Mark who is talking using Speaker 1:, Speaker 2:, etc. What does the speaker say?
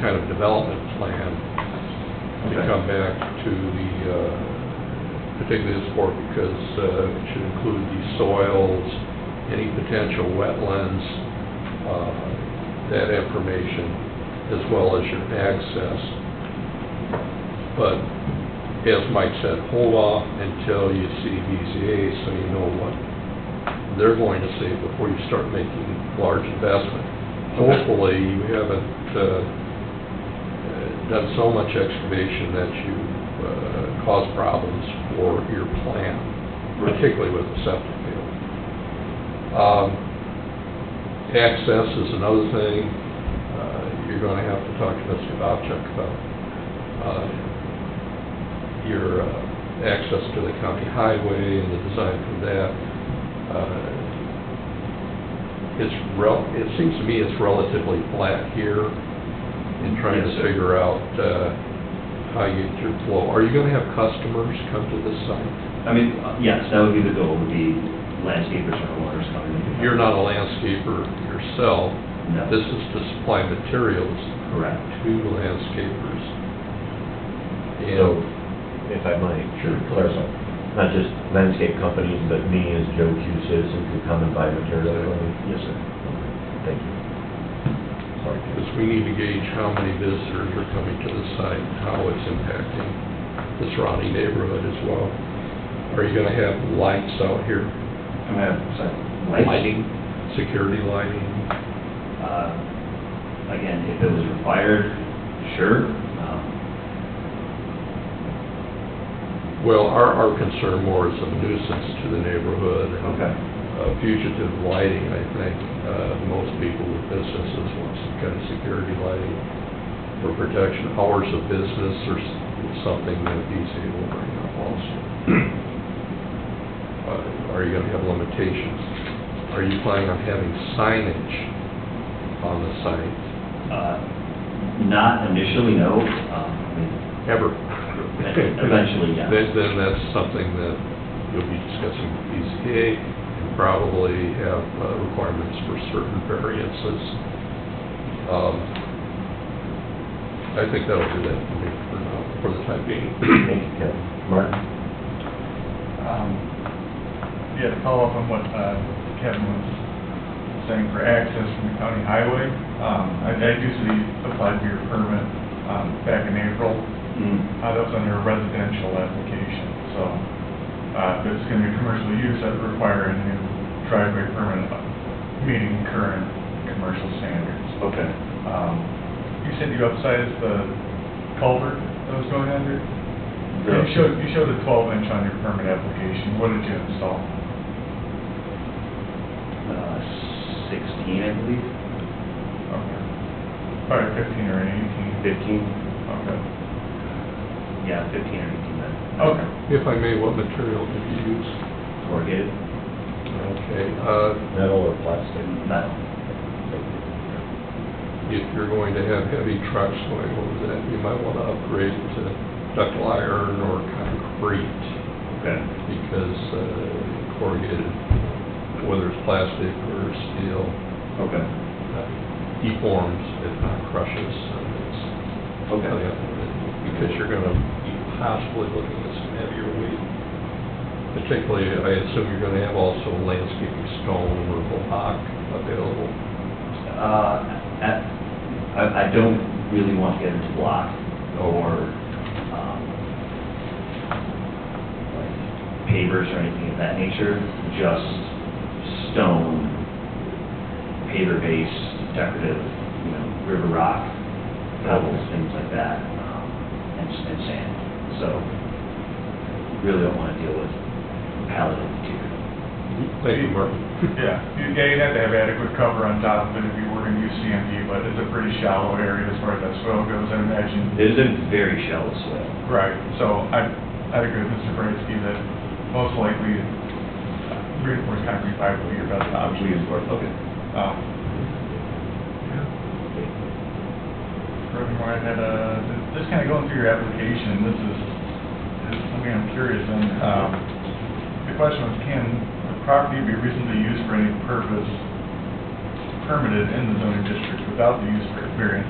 Speaker 1: kind of development plan to
Speaker 2: Okay.
Speaker 1: come back to the, uh, particularly this board, because uh, it should include the soils, any potential wetlands, uh, that information, as well as your access. But as Mike said, hold off until you see BZA, so you know what they're going to say before you start making large investment.
Speaker 2: Okay.
Speaker 1: Hopefully, you haven't uh, uh, done so much excavation that you uh, cause problems for your plan, particularly with the septic field. Um, Access is another thing uh, you're going to have to talk to Mr. Bobchuk about. uh, Your uh, access to the county highway and the design for that. Uh, It's rel, it seems to me it's relatively flat here in trying to
Speaker 2: Yes, sir.
Speaker 1: figure out uh, how you get your flow. Are you going to have customers come to this site?
Speaker 2: I mean, uh, yes, that would be the goal, would be landscapers or owners coming in.
Speaker 1: You're not a landscaper yourself.
Speaker 2: No.
Speaker 1: This is to supply materials
Speaker 2: Correct.
Speaker 1: to landscapers.
Speaker 3: So,
Speaker 1: And
Speaker 3: if I might,
Speaker 1: Sure.
Speaker 3: clarify, not just landscape companies, but me as Joe Q citizen could come and buy material from you?
Speaker 2: Yes, sir.
Speaker 3: Thank you. Sorry.
Speaker 1: Because we need to gauge how many visitors are coming to the site, and how it's impacting the surrounding neighborhood as well. Are you gonna have lights out here?
Speaker 2: I'm gonna have some lighting.
Speaker 1: Security lighting?
Speaker 2: Uh, Again, if it was required, sure. Um,
Speaker 1: Well, our, our concern more is a nuisance to the neighborhood. and,
Speaker 2: Okay.
Speaker 1: uh, Fugitive lighting, I think, uh, most people with businesses want some kind of security lighting for protection. Hours of business or s- something that these will bring up also. Uh, Are you gonna have limitations? Are you planning on having signage on the site
Speaker 2: uh, Not initially, no. Um, I mean,
Speaker 1: ever?
Speaker 2: Eventually, yes.
Speaker 1: Then, then that's something that you'll be discussing with BZA and probably have uh, requirements for certain variances. Um, I think that'll do that for me for now, for the time being.
Speaker 3: Thank you, Kevin. Martin?
Speaker 4: Um, Yeah, to follow up on what uh, Kevin was saying for access from the county highway, um, I I do see applied for your permit um, back in April.
Speaker 2: Mm,
Speaker 4: Uh, That was under a residential application, so uh, if it's going to be commercial use, that'd require a new driveway permit uh, meeting current commercial standards.
Speaker 2: Okay.
Speaker 4: Um, You said you upsized the culvert that was going under? You
Speaker 2: The-
Speaker 4: showed, you showed a twelve inch on your permit application, what did you install?
Speaker 2: uh, 16, I believe,
Speaker 4: Okay. Probably fifteen or eighteen.
Speaker 2: 15?
Speaker 4: Okay.
Speaker 2: Yeah, 15 or 18 then.
Speaker 4: Okay.
Speaker 1: If I may, what material did you use?
Speaker 2: Corrugated?
Speaker 1: Okay, uh,
Speaker 3: Metal or plastic?
Speaker 2: Metal.
Speaker 1: if you're going to have heavy trucks going over that, you might want to upgrade to ductile iron or concrete.
Speaker 2: Okay.
Speaker 1: because uh, corrugated, whether it's plastic or steel,
Speaker 2: Okay.
Speaker 1: uh, deforms, if not crushes. and it's-
Speaker 2: Okay.
Speaker 1: Because you're going to be possibly looking at some heavier weight. Particularly, I assume you're going to have also landscaping stone or block available.
Speaker 2: Uh, at- I, I don't really want to get into block or, um, like pavers or anything of that nature, just stone, paver base, decorative, you know, river rock, pebbles, things like that, um, and, s- and sand. So, really don't want to deal with palette of material.
Speaker 1: Thank you, Mark.
Speaker 4: Yeah, you, yeah, you'd have to have adequate cover on top of it if you were gonna use CMD, but it's a pretty shallow area as far as that soil goes, I imagine.
Speaker 2: It is a very shallow soil.
Speaker 4: Right, so I, I'd agree with Mr. Bransky that most likely reinforced concrete pipe would be your best option.
Speaker 2: Okay.
Speaker 4: Um, Furthermore, I had a, just kind of going through your application, this is, this is something I'm curious on. Um, The question was, can the property be reasonably used for any purpose permitted in the zoning district without the use variance